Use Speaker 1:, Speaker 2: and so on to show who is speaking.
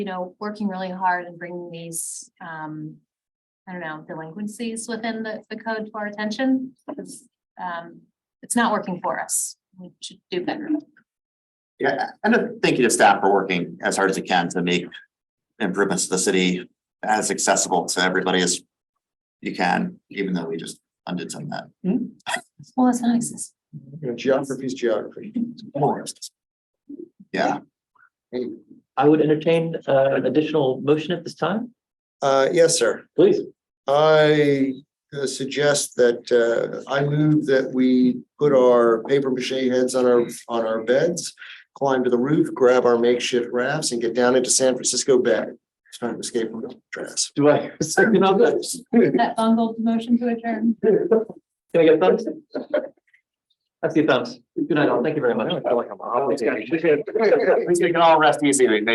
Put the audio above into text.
Speaker 1: you know, working really hard and bringing these, um, I don't know, delinquencies within the, the code to our attention. Because, um, it's not working for us. We should do better.
Speaker 2: Yeah, and a thank you to staff for working as hard as you can to make improvements to the city as accessible to everybody as you can, even though we just undid some of that.
Speaker 1: Well, it's not exist.
Speaker 3: You know, geography's geography.
Speaker 2: Yeah,
Speaker 4: I would entertain uh, an additional motion at this time,
Speaker 3: Uh, yes, sir.
Speaker 4: please.
Speaker 3: I uh, suggest that, uh, I move that we put our paper mache heads on our, on our beds, climb to the roof, grab our makeshift rafts and get down into San Francisco Bay. It's Trying to escape from the dress.
Speaker 4: Do I? Second on this. Can
Speaker 1: That bungled motion to adjourn.
Speaker 4: I get a thumbs? I see a thumbs. Good night all. Thank you very much.
Speaker 3: like I'm obligated.
Speaker 2: we can all rest easy.